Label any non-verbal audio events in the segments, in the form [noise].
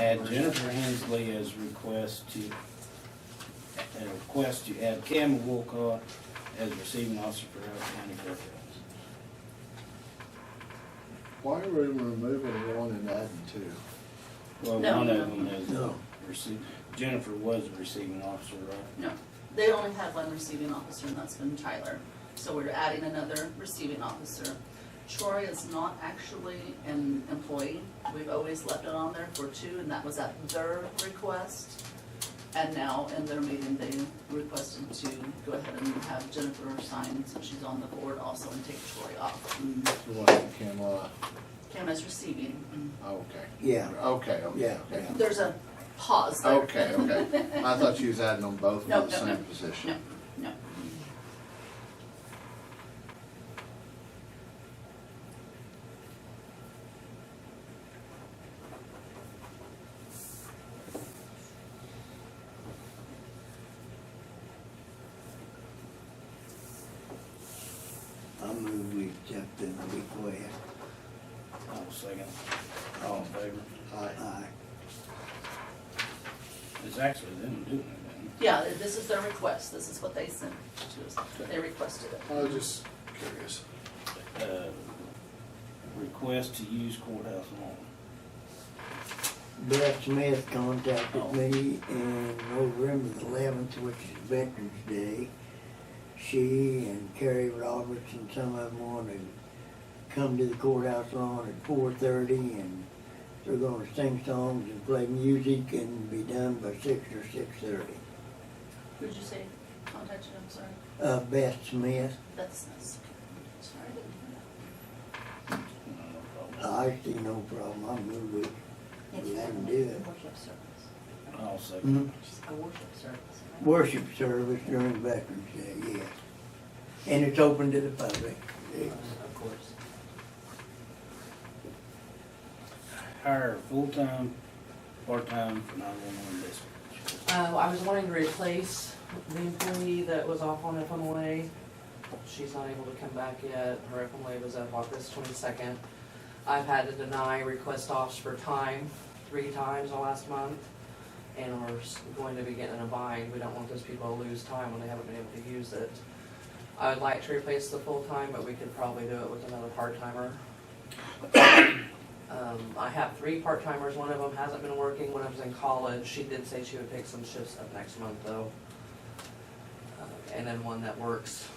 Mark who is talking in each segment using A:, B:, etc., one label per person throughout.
A: add Jennifer Hensley as request to, a request to add Cam Wilcott as receiving officer for Howard County Courthouse.
B: Why are we removing one and adding two?
A: Well,
C: No,
A: one of
C: no,
A: them is,
B: no.
A: rece- Jennifer was a receiving officer, right?
C: No, they only have one receiving officer, and that's been Tyler. So we're adding another receiving officer. Troy is not actually an employee. We've always left it on there for two, and that was at their request. And now in their meeting, they requested to go ahead and have Jennifer sign, since she's on the board also, and take Troy off.
B: The one that came off.
C: Cam is receiving.
B: Okay.
D: Yeah.
B: Okay, okay,
D: Yeah,
B: okay.
C: There's a pause there.
B: Okay, okay. I thought you was adding them both to
C: No,
B: the
C: no, no.
B: same position.
C: No, no.
D: I move we accept the request.
A: I'll second.
B: Oh,
A: All in favor?
D: Aye.
A: It's actually them doing it, isn't
C: [laughs] Yeah, this is their request, this is what they sent to us, they requested it.
B: I was just curious.
A: it? Uh, Request to use courthouse lawn.
D: Beth Smith contacted me in November the eleventh, which is Veterans Day. She and Carrie Roberts and some of them wanted to come to the courthouse lawn at four thirty and they're gonna sing songs and play music and be done by six or six thirty.
C: Who did you say contacted, I'm sorry?
D: Uh, Beth Smith,
C: That's, that's, sorry, I didn't hear that.
A: No, no problem.
D: I see no problem, I move with, we can do it. Oh.
C: Worship service,
A: I'll second.
C: just a worship service. right?
D: worship service during Veterans Day, yes. And it's open to the public.
C: Of course.
A: Hire full-time, part-time for nine-one-one dispatch.
E: Um, I was wanting to replace the employee that was off on FMLA. She's not able to come back yet. Her FMLA was up August twenty-second. I've had to deny request offs for time three times the last month. And we're s- going to be getting in a bind. We don't want those people to lose time when they haven't been able to use it. I would like to replace the full-time, but we could probably do it with another part-timer. Um, I have three part-timers, one of them hasn't been working, one of them's in college, she did say she would pick some shifts up next month though. Uh, And then one that works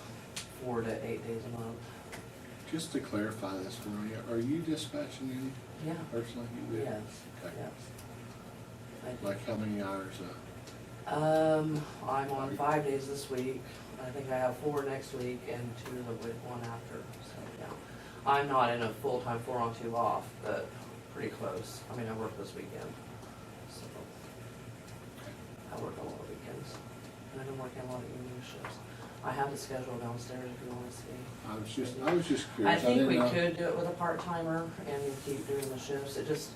E: four to eight days a month,
B: Just to clarify this for me, are you dispatching any
E: yeah,
B: personally? You do?
E: yes,
B: Okay.
E: yes. I-
B: Like how many hours? uh,
E: Um, I'm on five days this week, I think I have four next week and two the week one after, so, yeah. I'm not in a full-time four on two off, but pretty close, I mean, I work this weekend, so. I work a lot of weekends, and I don't work a lot of evening shifts. I have the schedule downstairs if you wanna see.
B: I was just, I was just
E: I
B: curious.
E: think
B: didn't
E: we
B: know-
E: could do it with a part-timer and keep doing the shifts, it just,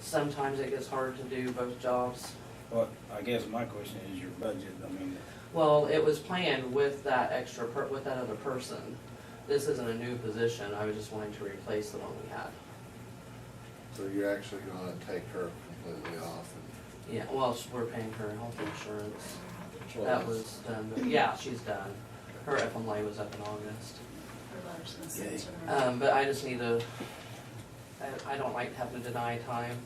E: sometimes it gets hard to do both jobs.
A: Well, I guess my question is your budget, I mean,
E: Well, it was planned with that extra, per- with that other person. This isn't a new position, I was just wanting to replace the one we had.
B: So you're actually gonna take her completely off and.
E: Yeah, well, s- we're paying her health insurance,
B: Well,
E: that was done, but yeah, she's done. Her FMLA was up in August.
C: Her letter's been
D: Okay. Uh,
C: sent to her.
E: Um, but I just need to, I, I don't like having to deny time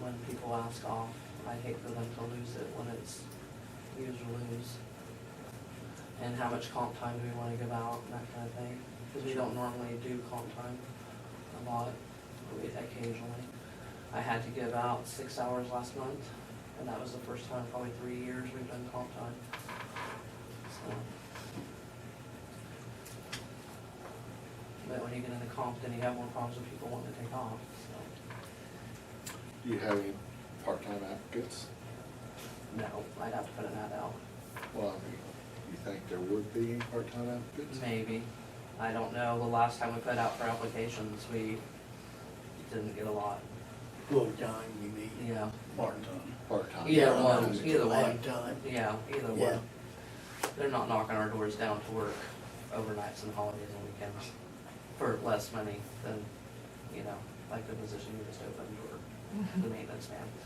E: when people ask off. I hate for them to lose it when it's use or lose. And how much comp time do we wanna give out and that kind of thing, cause we don't normally do comp time a lot, but we occasionally. I had to give out six hours last month, and that was the first time in probably three years we've done comp time. So. But when you get into comp, then you have more problems with people wanting to take off, so,
B: Do you have any part-time applicants?
E: no, I'd have to put an ad out.
B: Well, I mean, you think there would be any part-time applicants?
E: Maybe, I don't know, the last time we put out for applications, we didn't get a lot,
D: Full-time, you mean?
E: yeah,
A: part-time.
B: Part-time.
E: Yeah, one, either one.
D: Part-time.
E: yeah, either
D: Yeah.
E: one. They're not knocking our doors down to work overnights and holidays and weekends for less money than, you know, like the position you just opened or the maintenance man.